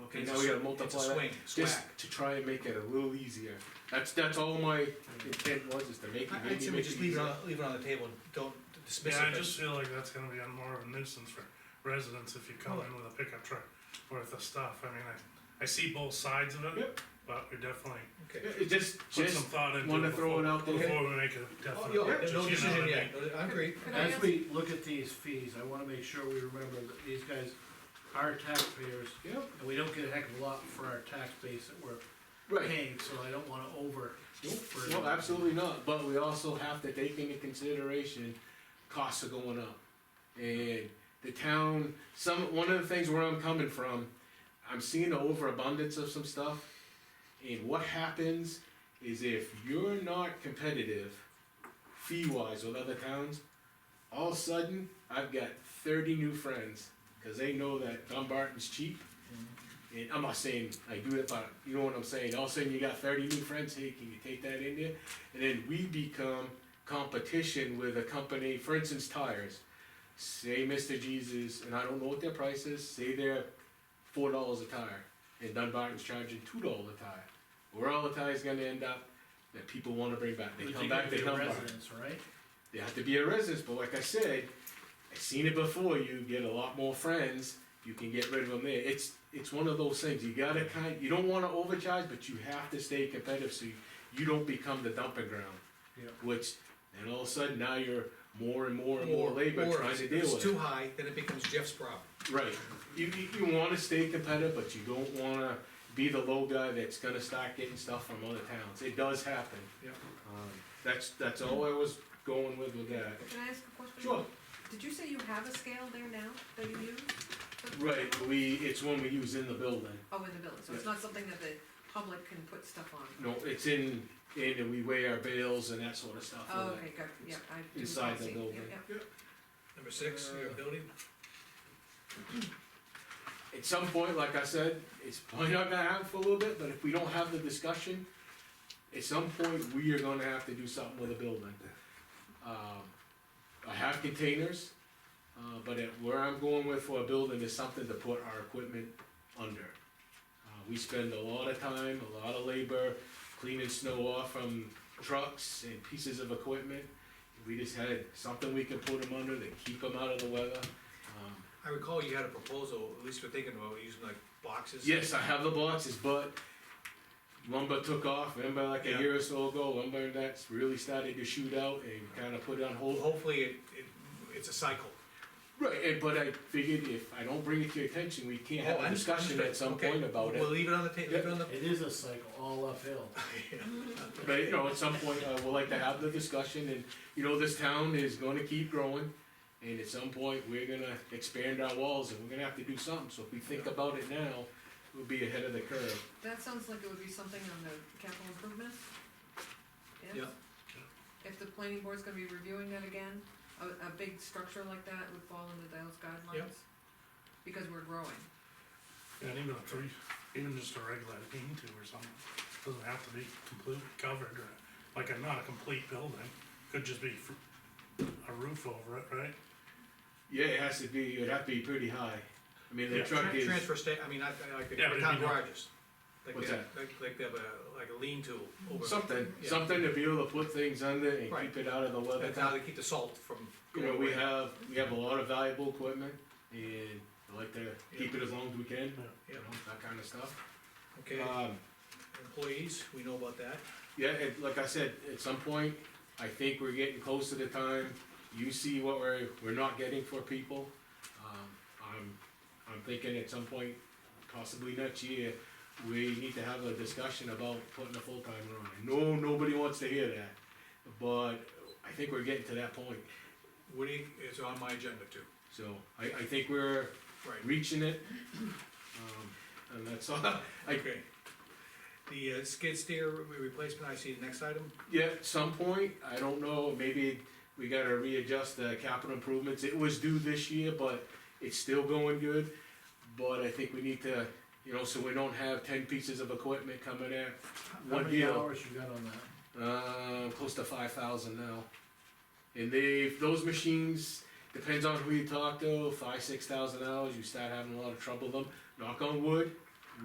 and It's now a we gotta s- multiply It's a that. swing, Just swag. to try and make it a little easier, that's, that's all my intent was, is to make it, I- maybe I'd say we make just it leave it easier. on, leave it on the table, don't dismiss it. Yeah, I but- just feel like that's gonna be a more of a nuisance for residents if you come in with a pickup truck worth of stuff, I mean, I, I see both sides of it, Yep. but we definitely Okay. Yeah, it Just, put some just thought into wanna it throw it before, out there. before we make a Oh, definite. yeah, purchase, no you know decision what I yet, mean? I agree. Could I As ask, we look at these fees, I wanna make sure we remember that these guys are taxpayers, Yep, and we don't get a heck of a lot for our tax base that we're right, paying, so I don't wanna over. Nope, no, absolutely not, but we also have to take into consideration, costs are going up. And the town, some, one of the things where I'm coming from, I'm seeing an overabundance of some stuff. And what happens is if you're not competitive fee-wise with other towns, all of a sudden, I've got thirty new friends, cause they know that Dunbarton's cheap. And I'm not saying I do it, but you know what I'm saying, all of a sudden you got thirty new friends, hey, can you take that in there? And then we become competition with a company, for instance, tires. Say Mr. Jesus, and I don't know what their price is, say they're four dollars a tire, and Dunbarton's charging two dollars a tire. Where all the tires gonna end up, that people wanna bring back, they come back to Particularly Dunbarton. Residents, right? They have to be a resident, but like I said, I've seen it before. You get a lot more friends. You can get rid of them there. It's it's one of those things. You gotta kind. You don't want to overcharge, but you have to stay competitive so you, you don't become the dumping ground. Yeah. Which then all of a sudden now you're more and more and more, labor or trying to if deal It's with. too high, then it becomes Jeff's problem. Right. You, you, you wanna stay competitive, but you don't wanna be the low guy that's gonna start getting stuff from other towns. It does happen. Yep. Um, that's, that's all I was going with with that. could I ask a question? Sure. Did you say you have a scale there now that you use? for- Right, we, it's one we use in the building. Oh, in the building, so it's not something that the public can put stuff on? No, it's in, in, and we weigh our bales and that sort of stuff. uh, Oh, okay, good, yeah, I didn't quite Inside the see. Yeah, building. yeah. Number six, your Uh, building, At some point, like I said, it's probably not gonna happen for a little bit, but if we don't have the discussion, at some point, we are gonna have to do something with the building. Um, I have containers, uh, but it- where I'm going with for a building is something to put our equipment under. Uh, We spend a lot of time, a lot of labor cleaning snow off from trucks and pieces of equipment. We just had something we can put them under to keep them out of the weather. Um, I recall you had a proposal, at least we're thinking about using like boxes. Yes, I have the boxes, but lumber took off. Remember, like Yeah. a year or so ago, lumber and that's really started to shoot out and kind of put it on Well, hold. Hopefully, it, it, it's a cycle. Right, and, but I figured if I don't bring it to your attention, we can't have Oh, a I'm- discussion at some okay. point about We'll it. leave it on the table, leave it on the, It is a cycle, all uphill. But you know, at some point, I would like to have the discussion, and you know, this town is going to keep growing. And at some point, we're gonna expand our walls, and we're gonna have to do something. So if we think about it now, we'll be ahead of the curve. That sounds like it would be something on the capital improvements. Yes? Yeah. If the planning board's gonna be reviewing that again, a, a big structure like that would fall under those guidelines? Because we're growing. And even a three, even just a regular lean to or something, doesn't have to be completely covered or, like, a not a complete building, could just be fr- a roof over it, right? Yeah, it has to be. It'd have to be pretty high. I mean, the Yeah. truck Tran- is. transfer sta, I mean, I, I like the Yeah, but it'd town be no- garages. Like What's they have- Like, like they have a, like a lean-to over. Something, Yeah. something to be able to put things under and Right. keep it out of the weather. That's how they keep the salt from You going know, we away. have, we have a lot of valuable equipment and I like to keep it as long as we can, you Yeah, know, that kind of stuff. okay, Um, employees, we know about that. yeah, and like I said, at some point, I think we're getting close to the time, you see what we're, we're not getting for people. Um, I'm, I'm thinking at some point, possibly next year, we need to have a discussion about putting a full-timer on. I know nobody wants to hear that, but I think we're getting to that point. Woody is on my agenda too. So I, I think we're Right, reaching it. Um, and that's all, I, okay. The uh, skid steer re- replacement, I see the next item. yeah, at some point, I don't know, maybe we gotta readjust the capital improvements. It was due this year, but it's still going good. But I think we need to, you know, so we don't have ten pieces of equipment coming in, How One many deal. hours you got on that? uh, close to five thousand now. And they, those machines, depends on who you talk to, five, six thousand hours, you start having a lot of trouble with them. Knock on wood,